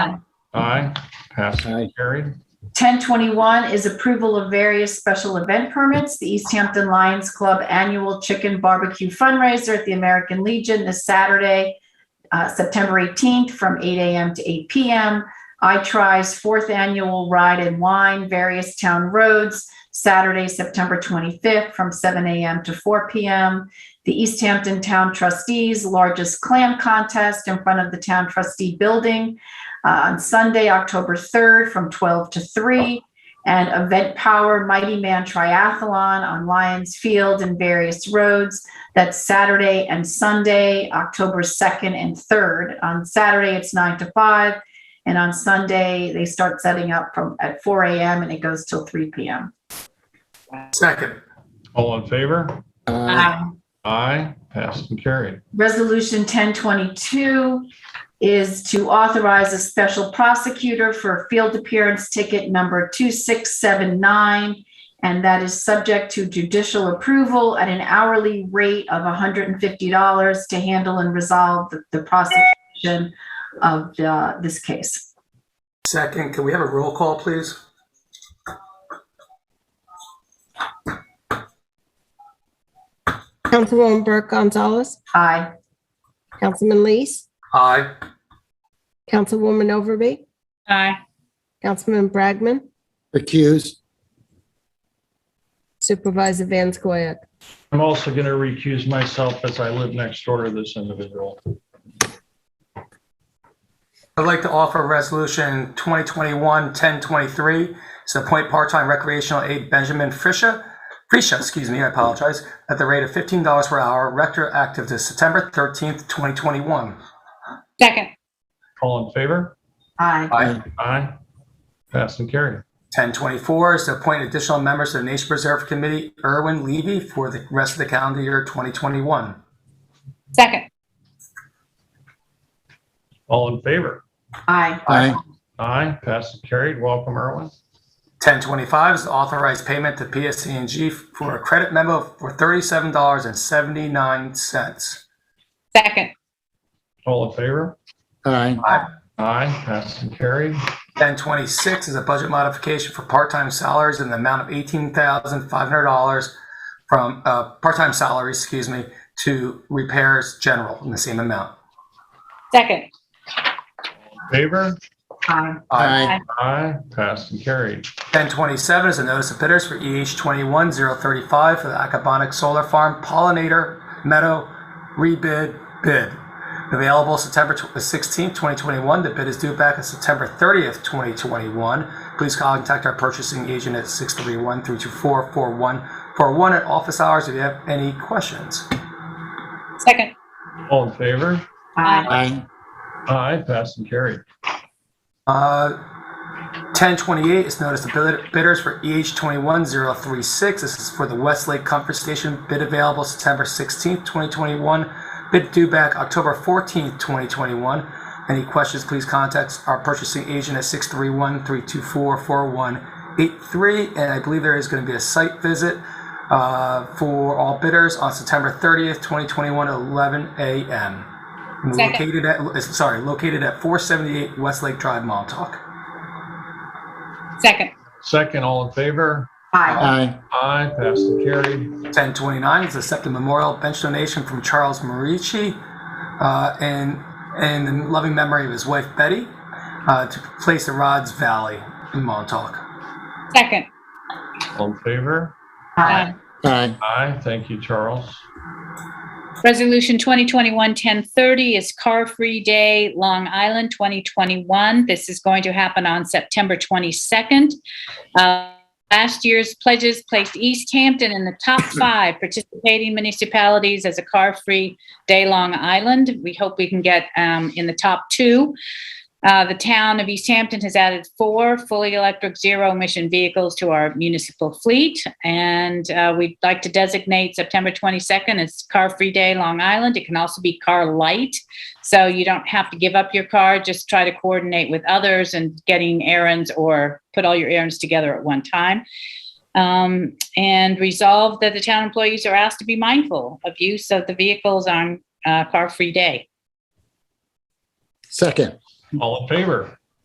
Aye, passed Aye. and carried. 1021 is approval of various special event permits, the East Hampton Lions Club Annual Chicken Barbecue Fundraiser at the American Legion this Saturday, uh, September 18th, from 8 a.m. to 8 p.m. iTry's Fourth Annual Ride and Wine, various town roads, Saturday, September 25th, from 7 a.m. to 4 p.m. The East Hampton Town Trustees Largest Clam Contest in front of the Town Trustee Building, uh, on Sunday, October 3rd, from 12 to 3, and Event Power Mighty Man Triathlon on Lions Field and various roads. That's Saturday and Sunday, October 2nd and 3rd. On Saturday, it's 9 to 5, and on Sunday, they start setting up from at 4 a.m. and it goes till 3 p.m. second, All in favor? Uh, Aye. Aye, passed and carried. Resolution 1022 is to authorize a special prosecutor for field appearance ticket number 2679, and that is subject to judicial approval at an hourly rate of $150 to handle and resolve the- the prosecution of uh, this case. second. Can we have a roll call, please? Councilwoman Burke Gonzalez, Aye. Councilman Lees, Aye, Councilwoman Overby, aye, Councilman Bragman, Recuse. Supervisor Van Scoyac. I'm also going to recuse myself as I live next door to this individual. I'd like to offer Resolution 2021-1023. It's to appoint part-time recreational aide Benjamin Frisha, Frisha, excuse me, I apologize, at the rate of $15 per hour, retroactive to September 13th, 2021. second, All in favor? Aye. Aye. Aye, passed and carried. 1024 is to appoint additional members to the Nation Preserve Committee, Erwin Levy, for the rest of the calendar year 2021. second, All in favor? Aye. Aye. Aye, passed and carried. Welcome, Erwin. 1025 is to authorize payment to PSCNG for a credit memo for $37.79. second, All in favor? Aye. Aye, passed and carried. 1026 is a budget modification for part-time salaries in the amount of $18,500 from, uh, part-time salaries, excuse me, to repairs general in the same amount. second, Favor? Aye. Aye. Aye, passed and carried. 1027 is a notice of bidders for EH 21035 for the Acabonic Solar Farm Pollinator Meadow Rebid Bid. Available September tw- 16th, 2021. The bid is due back on September 30th, 2021. Please contact our purchasing agent at 631-324-4141 at office hours if you have any questions. second, All in favor? Aye. Aye. Aye, passed and carried. Uh, 1028 is notice of bid- bidders for EH 21036. This is for the Westlake Comfort Station. Bid available September 16th, 2021. Bid due back October 14th, 2021. Any questions, please contact our purchasing agent at 631-324-4183. And I believe there is going to be a site visit uh, for all bidders on September 30th, 2021, 11 a.m. Second. Located at, uh, sorry, located at 478 Westlake Drive, Montauk. second, Second, all in favor? Aye. Aye. Aye, passed and carried. 1029 is the second memorial bench donation from Charles Marici uh, in, in loving memory of his wife Betty uh, to place at Rod's Valley in Montauk. second, All in favor? aye. Aye. Aye, thank you, Charles. Resolution 2021-1030 is Car Free Day, Long Island 2021. This is going to happen on September 22nd. Uh, Last year's pledges placed East Hampton in the top five participating municipalities as a Car Free Day, Long Island. We hope we can get um, in the top two. Uh, The town of East Hampton has added four fully electric zero-emission vehicles to our municipal fleet. And uh, we'd like to designate September 22nd as Car Free Day, Long Island. It can also be Car Light. So you don't have to give up your car, just try to coordinate with others and getting errands or put all your errands together at one time. Um, And resolve that the town employees are asked to be mindful of use of the vehicles on uh, Car Free Day. Second. All in favor?